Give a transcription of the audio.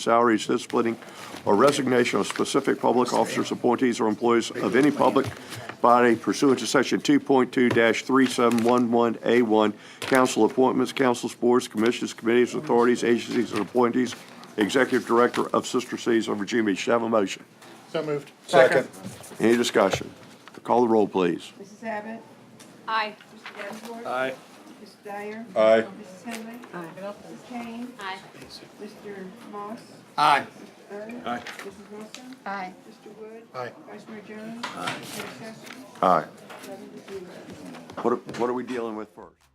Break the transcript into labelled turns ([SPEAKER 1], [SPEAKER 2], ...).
[SPEAKER 1] salary, shift splitting, or resignation of specific public officers, appointees, or employees of any public body pursuant to Section 2.2-3711A1, council appointments, councils, boards, commissions, committees, authorities, agencies, and appointees, executive director of Sister Cities of Virginia Beach. Should I have a motion?
[SPEAKER 2] So moved.
[SPEAKER 3] Second.
[SPEAKER 1] Any discussion? Call the roll, please.
[SPEAKER 4] Mrs. Abbott?
[SPEAKER 5] Aye.
[SPEAKER 4] Mr. Davenport?
[SPEAKER 3] Aye.
[SPEAKER 4] Mr. Dyer?
[SPEAKER 3] Aye.
[SPEAKER 4] Mrs. Henley? Aye. Mrs. Kane?
[SPEAKER 5] Aye.
[SPEAKER 4] Mr. Moss?
[SPEAKER 2] Aye.
[SPEAKER 4] Third?
[SPEAKER 3] Aye.
[SPEAKER 4] Mrs. Wilson?
[SPEAKER 5] Aye.
[SPEAKER 4] Mr. Wood?
[SPEAKER 2] Aye.
[SPEAKER 4] Vice Mayor Jones? Aye. Mayor Sessions?
[SPEAKER 1] Aye.
[SPEAKER 4] Seven to zero.
[SPEAKER 1] What are- what are we dealing with first?